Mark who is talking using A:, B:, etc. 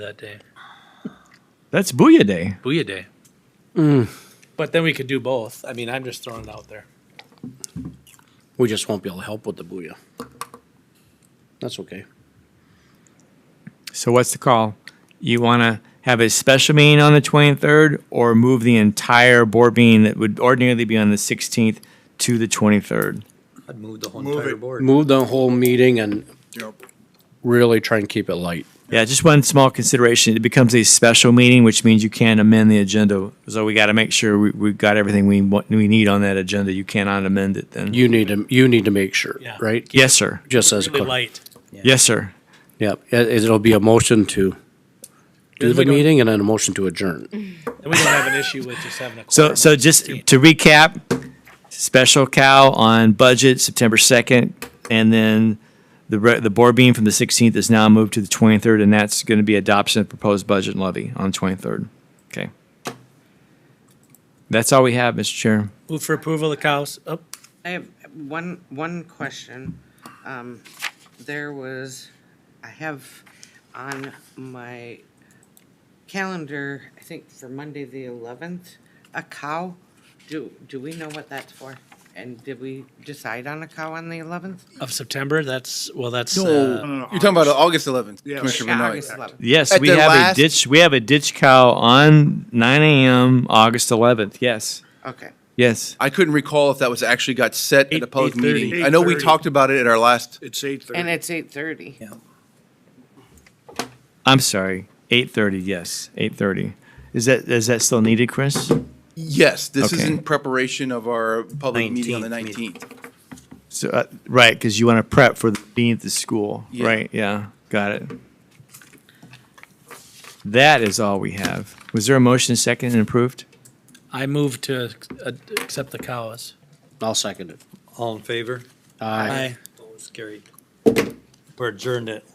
A: that day.
B: That's Booyah Day.
A: Booyah Day. But then we could do both. I mean, I'm just throwing it out there.
C: We just won't be able to help with the booyah. That's okay.
B: So what's the call? You want to have a special meeting on the 23rd or move the entire board meeting that would ordinarily be on the 16th to the 23rd?
D: I'd move the whole
E: Move
D: entire
E: it.
D: board.
C: Move the whole meeting and
E: Yep.
C: really try and keep it light.
B: Yeah, just one small consideration. It becomes a special meeting, which means you can amend the agenda. So we got to make sure we, we've got everything we want, we need on that agenda. You cannot amend it then.
C: You need to, you need to make sure,
A: Yeah.
C: right?
B: Yes, sir.
C: Just as a
A: Really
C: clerk.
A: light.
B: Yes, sir.
C: Yep, it, it'll be a motion to do
A: Then
C: the
A: we don't-
C: meeting and then a motion to adjourn.
A: And we don't have an issue with just having a.
B: So,
A: quorum.
B: so just to recap, special cow on budget, September 2nd, and then the, re- the board meeting from the 16th is now moved to the 23rd, and that's going to be adoption of proposed budget and levy on 23rd. Okay. That's all we have, Mr. Chair.
A: Move for approval of the cows. Oh,
F: I have one, one question. Um, there was, I have on my calendar, I think for Monday, the eleventh, a cow. Do, do we know what that's for? And did we decide on a cow on the eleventh?
A: of September, that's, well, that's,
E: No,
A: uh,
E: no, no, You're talking about August 11th,
G: Yeah.
E: Commissioner Benoit.
F: August eleventh.
B: Yes,
E: At
B: we
E: the
B: have a
E: last-
B: ditch, we have a ditch cow on 9 AM, August 11th. Yes,
F: Okay,
B: yes.
E: I couldn't recall if that was actually got set at a
A: Eight-
E: public
A: 8:30.
E: meeting. I know we
G: 8:30.
E: talked about it at our last,
G: It's eight thirty.
F: and it's eight thirty.
B: I'm sorry, 8:30, yes, 8:30. Is that, is that still needed, Chris?
E: yes, this is
B: Okay.
E: in preparation of our public meeting on the
D: 19th
E: 19th.
B: So, uh, right, because you want to prep for being at the school,
E: Yeah.
B: right? Yeah, got it. That is all we have. Was there a motion second and approved?
A: I move to uh, accept the cows.
C: I'll second it.
D: All in favor?
C: Aye.
D: Opposed, carried. We're adjourned at